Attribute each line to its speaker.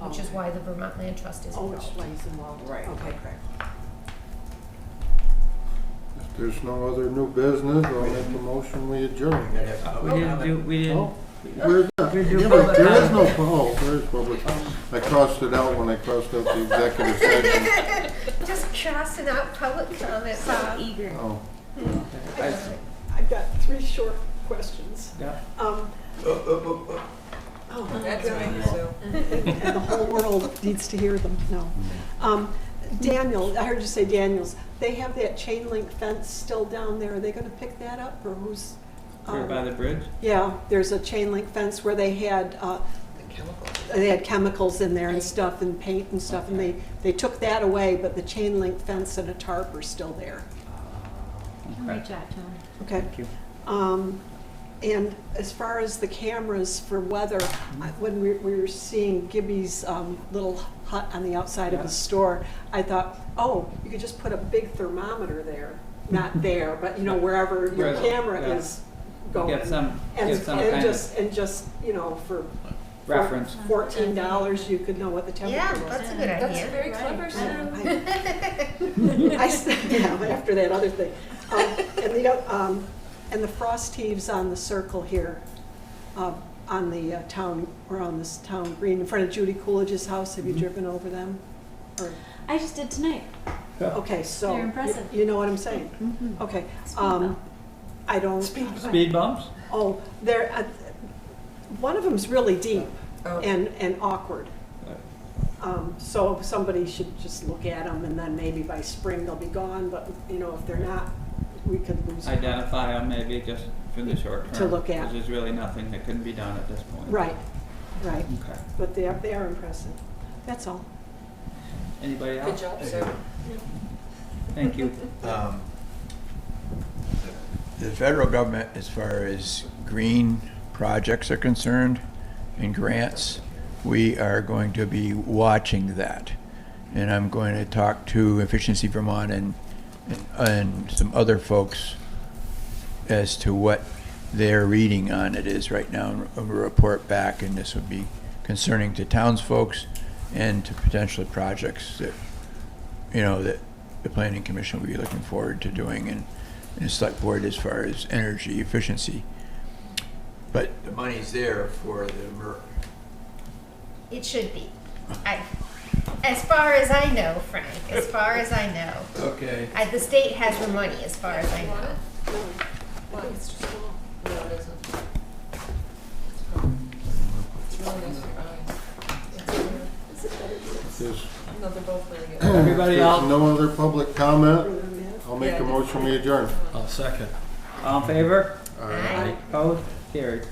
Speaker 1: which is why the Vermont Land Trust is
Speaker 2: Oh, which
Speaker 1: involved.
Speaker 2: one's involved?
Speaker 3: Right,
Speaker 2: Okay.
Speaker 3: okay.
Speaker 4: If there's no other new business, I'll make a motion, we adjourn.
Speaker 5: We didn't do, we didn't.
Speaker 4: Oh, where's that?
Speaker 5: We do
Speaker 4: Yeah, but There is no,
Speaker 5: public
Speaker 4: oh, there is public, I crossed it out when I crossed out the executive session.
Speaker 1: Just crossing out public comment, Bob.
Speaker 3: Eager.
Speaker 4: Oh,
Speaker 2: I've got three short questions.
Speaker 5: Yeah.
Speaker 2: Um, oh, my God.
Speaker 3: so.
Speaker 2: And the whole world needs to hear them, no. Um, Daniel, I heard you say Daniels, they have that chain link fence still down there, are they gonna pick that up, or who's?
Speaker 5: We're
Speaker 2: um,
Speaker 5: by the bridge.
Speaker 2: Yeah, there's a chain link fence where they had, uh, they had chemicals in there and stuff, and paint and stuff, and they, they took that away, but the chain link fence and a tarp are still there,
Speaker 5: Okay.
Speaker 2: okay?
Speaker 5: Thank you.
Speaker 2: Um, And as far as the cameras for weather,
Speaker 5: Mm-hmm.
Speaker 2: I- when we we were seeing Gibby's um, little hut on the outside of the store, I thought, oh, you could just put a big thermometer there, not there, but you know, wherever your
Speaker 5: Right,
Speaker 2: camera
Speaker 5: yeah.
Speaker 2: is going.
Speaker 5: Get some,
Speaker 2: And-
Speaker 5: get some
Speaker 2: And
Speaker 5: kind of
Speaker 2: just, and just, you know, for
Speaker 5: reference.
Speaker 2: fourteen dollars, you could know what the
Speaker 1: Yeah,
Speaker 2: temperature was.
Speaker 1: that's a good
Speaker 6: That's
Speaker 1: idea.
Speaker 6: very clever, Sue.
Speaker 2: I said, yeah, but after that other thing. Um, And the, oth- um, and the frost heaves on the circle here, uh, on the uh, town, or on this town green, in front of Judy Coolidge's house, have you
Speaker 5: Mhm.
Speaker 2: driven over them? Or-
Speaker 6: I just did tonight.
Speaker 2: Okay, so.
Speaker 6: They're
Speaker 2: you-
Speaker 6: impressive.
Speaker 2: You know what I'm saying? Okay,
Speaker 6: Speed
Speaker 2: um,
Speaker 6: bump.
Speaker 2: I don't.
Speaker 5: Speed bumps?
Speaker 2: Oh, there, uh, one of them's really deep
Speaker 3: Oh.
Speaker 2: and, and awkward.
Speaker 5: Right.
Speaker 2: Um, So somebody should just look at them and then maybe by spring they'll be gone, but, you know, if they're not, we could lose. them.
Speaker 5: Identify them maybe just for the short term.
Speaker 2: To look at.
Speaker 5: 'cause there's really nothing that can be done at this point.
Speaker 2: Right, right,
Speaker 5: Okay.
Speaker 2: but they are, they are impressive, that's all.
Speaker 5: Anybody
Speaker 3: Good
Speaker 5: else?
Speaker 3: job, sir.
Speaker 5: Thank you.
Speaker 7: um, The federal government, as far as green projects are concerned and grants, we are going to be watching that. And I'm going to talk to Efficiency Vermont and, and some other folks as to what their reading on it is right now, and we'll report back, and this would be concerning to townsfolks and to potentially projects that you know, that the planning commission would be looking forward to doing and, and the select board as far as energy efficiency. But the money's there for the mer-
Speaker 1: It should be. I, as far as I know, Frank, as far as I know,
Speaker 7: Okay.
Speaker 1: I, the state has the money, as far as I know.
Speaker 3: What? No, it isn't. It's really nice for your eyes.
Speaker 4: if there's,
Speaker 3: No, they're both really good.
Speaker 4: if
Speaker 5: Everybody
Speaker 4: there's
Speaker 5: else?
Speaker 4: no other public comment,
Speaker 2: Further than that?
Speaker 4: I'll make a motion, we adjourn.
Speaker 5: All in favor?
Speaker 1: Aye.
Speaker 5: Opposed? Carried.